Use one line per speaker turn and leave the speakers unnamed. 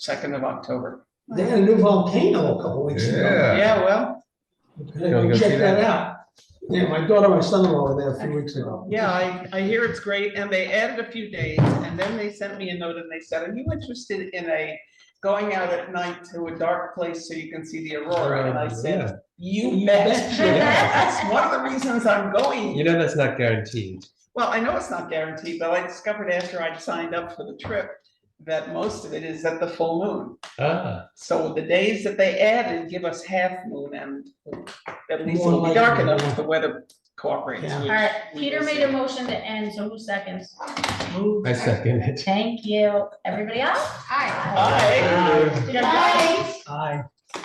second of October.
They had a new volcano a couple weeks ago.
Yeah.
Yeah, well,
Gotta go
Okay,
see
Check that
that.
out. Yeah, my daughter and my son-in-law were there a few weeks ago.
yeah, I, I hear it's great, and they added a few days, and then they sent me a note and they said, are you interested in a going out at night to a dark place so you can see the aurora? And I said, you bet.
Yeah.
That's one of the reasons I'm going.
You know, that's not guaranteed.
Well, I know it's not guaranteed, but I discovered after I'd signed up for the trip that most of it is at the full moon.
Ah,
So the days that they added give us half moon and at least
More
it'll be
like-
dark enough if the weather cooperates.
Yeah.
which
All right,
we
Peter
will
made a
see.
motion to end, so who seconds?
I second it.
Thank you. Everybody else?
Aye.
Aye.
Aye.